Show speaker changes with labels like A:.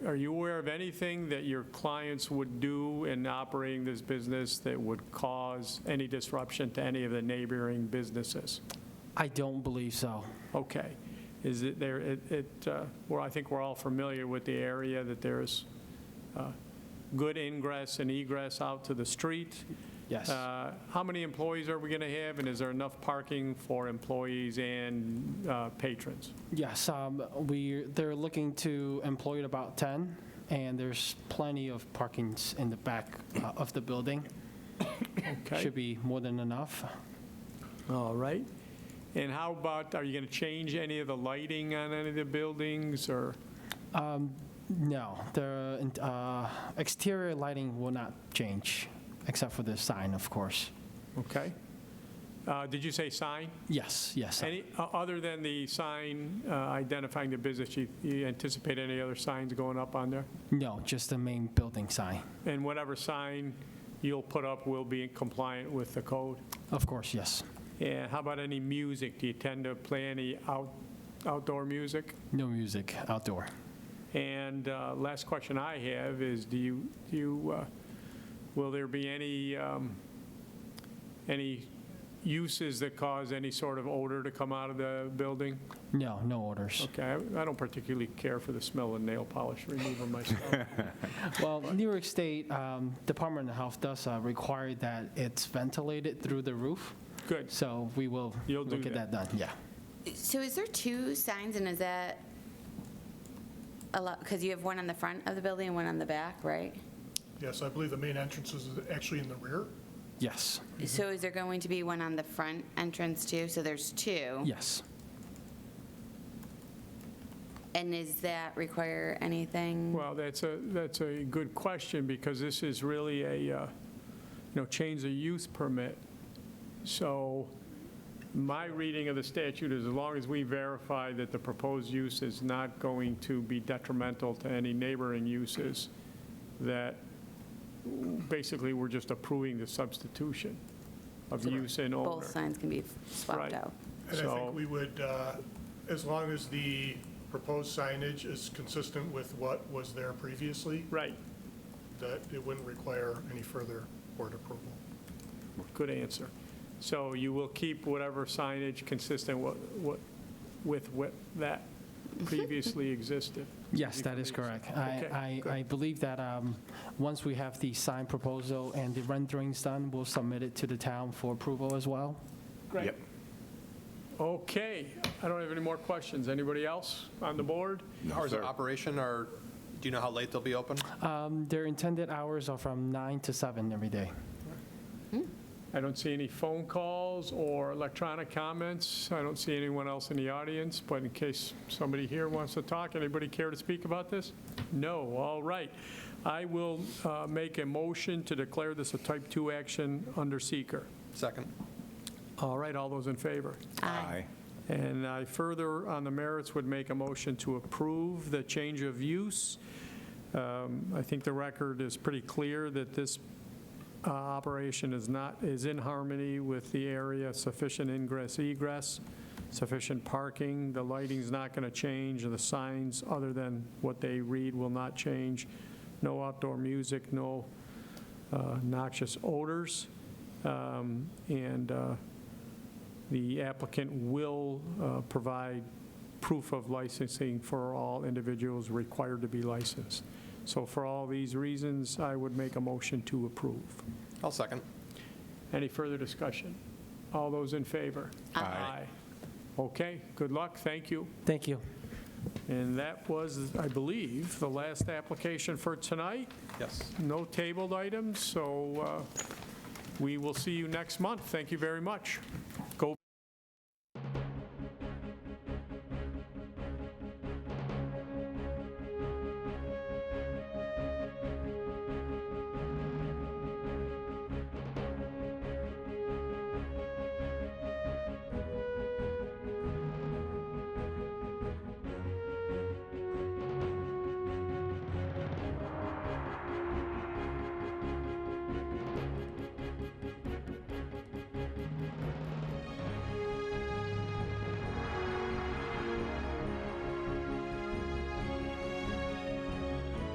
A: are you aware of anything that your clients would do in operating this business that would cause any disruption to any of the neighboring businesses?
B: I don't believe so.
A: Okay. Is it there, it- it, uh, well, I think we're all familiar with the area, that there's uh, good ingress and egress out to the street.
B: Yes.
A: Uh, How many employees are we going to have, and is there enough parking for employees and uh, patrons?
B: Yes, um, we, they're looking to employ about 10, and there's plenty of parkings in the back uh, of the building.
A: Okay.
B: Should be more than enough.
A: All right. And how about, are you going to change any of the lighting on any of the buildings, or,
B: No, the uh, exterior lighting will not change, except for the sign, of course.
A: okay? Uh, Did you say sign?
B: Yes, yes.
A: Any, o- other than the sign uh, identifying the business, you- you anticipate any other signs going up on there?
B: No, just the main building sign.
A: And whatever sign you'll put up will be compliant with the code?
B: Of course, yes.
A: And how about any music? Do you tend to play any out outdoor music?
B: No music outdoor.
A: And uh, last question I have is, do you, do you, uh, will there be any, um, any uses that cause any sort of odor to come out of the building?
B: No, no orders.
A: Okay, I- I don't particularly care for the smell of nail polish remover myself.
B: Well, New York State um, Department of Health does uh, require that it's ventilated through the roof,
A: Good.
B: so we will
A: You'll do
B: look at
A: that.
B: that done, yeah.
C: So is there two signs and is that a lot, because you have one on the front of the building and one on the back, right?
D: Yes, I believe the main entrance is actually in the rear.
B: Yes,
C: So is there going to be one on the front entrance too? So there's two?
B: yes.
C: And does that require anything?
A: Well, that's a, that's a good question, because this is really a, uh, you know, change of use permit. So my reading of the statute is as long as we verify that the proposed use is not going to be detrimental to any neighboring uses, that basically we're just approving the substitution of use and owner.
C: Both signs can be
A: Right.
C: swapped out?
D: And I
A: So-
D: think we would, uh, as long as the proposed signage is consistent with what was there previously,
A: Right,
D: that it wouldn't require any further board approval.
A: good answer. So you will keep whatever signage consistent wa- wa- with what that previously existed?
B: Yes, that is correct. I,
A: Okay,
B: I, I believe that um, once we have the signed proposal and the renderings done, we'll submit it to the town for approval as well.
A: Great. Okay, I don't have any more questions. Anybody else on the board?
E: Hours of operation, or do you know how late they'll be open?
B: Um, Their intended hours are from 9 to 7 every day.
A: I don't see any phone calls or electronic comments. I don't see anyone else in the audience, but in case somebody here wants to talk, anybody care to speak about this? No, all right. I will uh, make a motion to declare this a type 2 action under seeker.
E: Second.
A: All right, all those in favor?
F: Aye.
A: And I further, on the merits, would make a motion to approve the change of use. Um, I think the record is pretty clear that this uh, operation is not, is in harmony with the area, sufficient ingress, egress, sufficient parking, the lighting's not going to change, and the signs, other than what they read, will not change, no outdoor music, no uh, noxious odors, Um, and uh, the applicant will uh, provide proof of licensing for all individuals required to be licensed. So for all these reasons, I would make a motion to approve.
E: I'll second.
A: Any further discussion? All those in favor? Aye. Okay, good luck, thank you.
B: Thank you.
A: And that was, I believe, the last application for tonight.
E: Yes.
A: No tabled items, so uh, we will see you next month. Thank you very much.